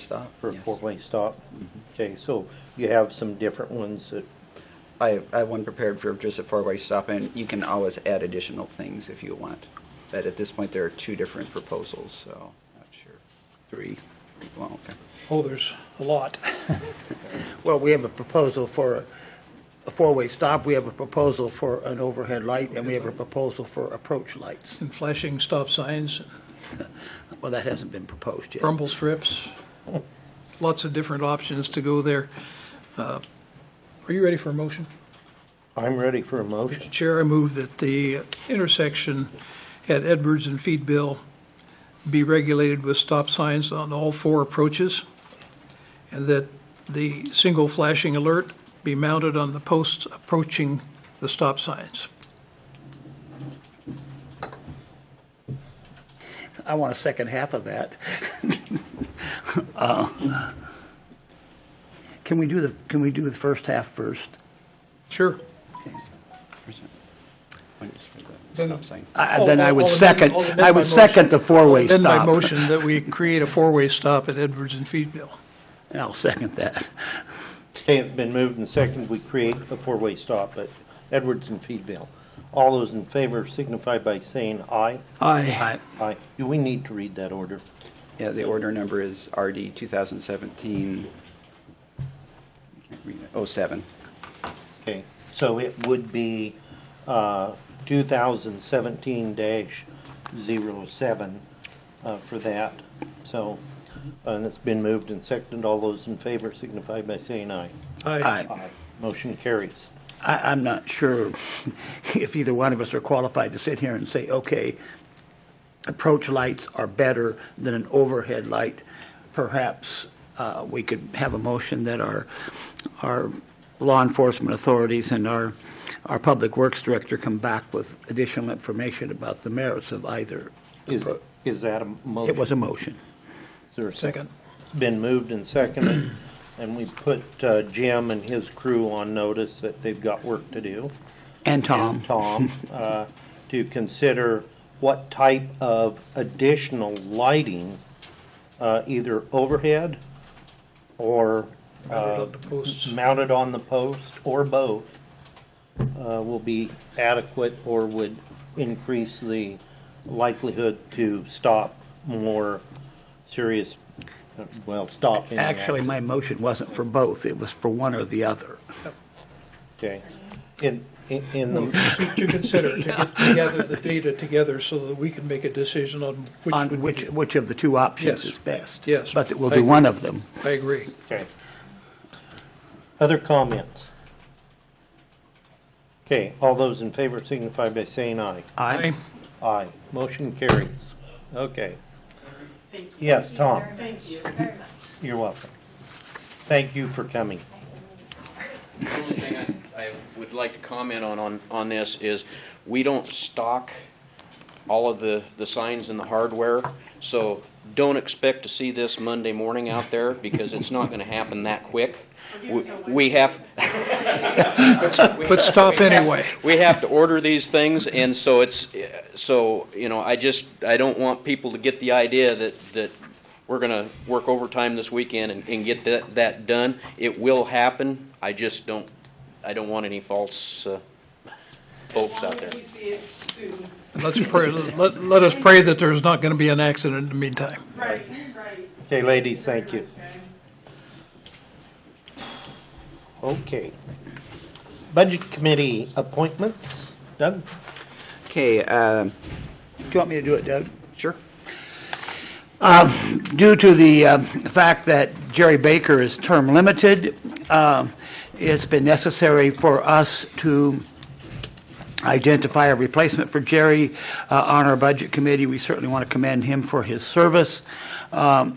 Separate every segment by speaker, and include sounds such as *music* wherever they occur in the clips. Speaker 1: stop.
Speaker 2: for a
Speaker 1: yes.
Speaker 2: four-way stop? Okay, so you have some different ones that,
Speaker 1: I, I have one prepared for just a four-way stop, and you can always add additional things if you want. But at this point, there are two different proposals, so I'm not sure. Three. Well, okay.
Speaker 3: Oh, there's a lot. *laughs*
Speaker 4: Well, we have a proposal for a four-way stop, we have a proposal for an overhead light, and we have a proposal for approach lights.
Speaker 3: And flashing stop signs,
Speaker 4: Well, that hasn't been proposed yet.
Speaker 3: rumble strips, lots of different options to go there. Uh, Are you ready for a motion?
Speaker 2: I'm ready for a
Speaker 3: Mr.
Speaker 2: motion.
Speaker 3: Chair, I move that the intersection at Edwards and Feedville be regulated with stop signs on all four approaches, and that the single flashing alert be mounted on the posts approaching the stop signs.
Speaker 4: I want a second half of that. *laughs* Uh, Can we do the, can we do the first half first?
Speaker 3: Sure.
Speaker 1: Where's that? One is for the
Speaker 3: Then-
Speaker 1: stop sign.
Speaker 4: I- Then I
Speaker 3: I'll-
Speaker 4: would
Speaker 3: I'll amend-
Speaker 4: second,
Speaker 3: oh, I'll amend
Speaker 4: I
Speaker 3: my
Speaker 4: would second the
Speaker 3: motion.
Speaker 4: four-way stop.
Speaker 3: Amend
Speaker 4: *laughs*
Speaker 3: my motion that we create a four-way stop at Edwards and Feedville.
Speaker 4: I'll second that.
Speaker 2: Okay, it's been moved and seconded, we create a four-way stop at Edwards and Feedville. All those in favor signify by saying aye.
Speaker 3: Aye.
Speaker 2: Aye. Do we need to read that order?
Speaker 1: Yeah, the order number is RD 2017, I can't read it, Oh, 07.
Speaker 2: Okay, so it would be uh, 2017-07 uh, for that. So, and it's been moved and seconded. All those in favor signify by saying aye.
Speaker 4: Aye.
Speaker 2: Motion carries.
Speaker 4: I, I'm not sure *laughs* if either one of us are qualified to sit here and say, okay, approach lights are better than an overhead light. Perhaps uh, we could have a motion that our, our law enforcement authorities and our, our public works director come back with additional information about the merits of either.
Speaker 2: Is, is that a motion?
Speaker 4: It was a motion.
Speaker 2: Is there a
Speaker 3: Second.
Speaker 2: It's been moved and seconded, and we put uh, Jim and his crew on notice that they've got work to do.
Speaker 4: And Tom.
Speaker 2: and Tom, uh, to consider what type of additional lighting, uh, either overhead or
Speaker 3: Mounted
Speaker 2: uh,
Speaker 3: on the posts.
Speaker 2: mounted on the post, or both, uh, will be adequate or would increase the likelihood to stop more serious, uh, well, stop any
Speaker 4: Actually, my motion wasn't for both. It was for one or the other.
Speaker 2: Okay. In, in- in
Speaker 4: *laughs*
Speaker 2: the,
Speaker 3: To to consider, *laughs* to get- to gather the data together so that we can make a decision on which. would
Speaker 4: on
Speaker 3: be-
Speaker 4: which, which of the two options
Speaker 3: Yes.
Speaker 4: is best.
Speaker 3: Yes.
Speaker 4: But we'll
Speaker 3: I
Speaker 4: do
Speaker 3: agree.
Speaker 4: one of them.
Speaker 3: I agree.
Speaker 2: Okay. Other comments? Okay, all those in favor signify by saying aye.
Speaker 4: I
Speaker 2: Aye. Motion carries. Okay,
Speaker 5: Thank you.
Speaker 2: Yes,
Speaker 5: Thank you
Speaker 2: Tom.
Speaker 5: very much. Thank you very much.
Speaker 2: you're welcome. Thank you for coming.
Speaker 6: The only thing I, I would like to comment on, on, on this is, we don't stock all of the, the signs and the hardware, so don't expect to see this Monday morning out there, because it's not gonna happen that quick. We- We have.
Speaker 3: But stop anyway.
Speaker 6: We have to order these things, and so it's, so, you know, I just, I don't want people to get the idea that, that we're gonna work overtime this weekend and, and get that, that done. It will happen, I just don't, I don't want any false, uh, hopes out there.
Speaker 5: We see it soon.
Speaker 3: Let's pray, let, let us pray that there's not going to be an accident in the meantime.
Speaker 5: Right, right.
Speaker 2: Okay, ladies, thank you.
Speaker 5: Okay.
Speaker 2: Okay. Budget Committee appointments. Doug?
Speaker 1: Okay, um,
Speaker 4: Do you want me to do it, Doug?
Speaker 1: sure.
Speaker 4: Um, Due to the uh, fact that Jerry Baker is term limited, um, it's been necessary for us to identify a replacement for Jerry uh, on our Budget Committee. We certainly want to commend him for his service. Um,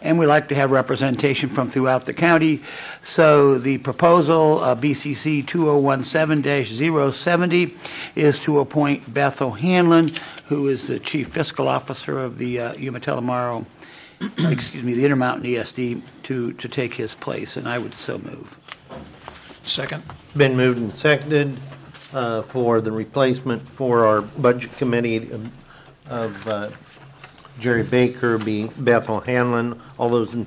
Speaker 4: And we like to have representation from throughout the county. So the proposal, uh, BCC 2017-070, is to appoint Beth O'Hanlon, who is the Chief Fiscal Officer of the uh, Umatilla-Morrow, *clears throat* excuse me, the Intermountain ESD, to, to take his place, and I would so move.
Speaker 3: Second.
Speaker 2: Been moved and seconded uh, for the replacement for our Budget Committee of- of uh, Jerry Baker, be Beth O'Hanlon. All those in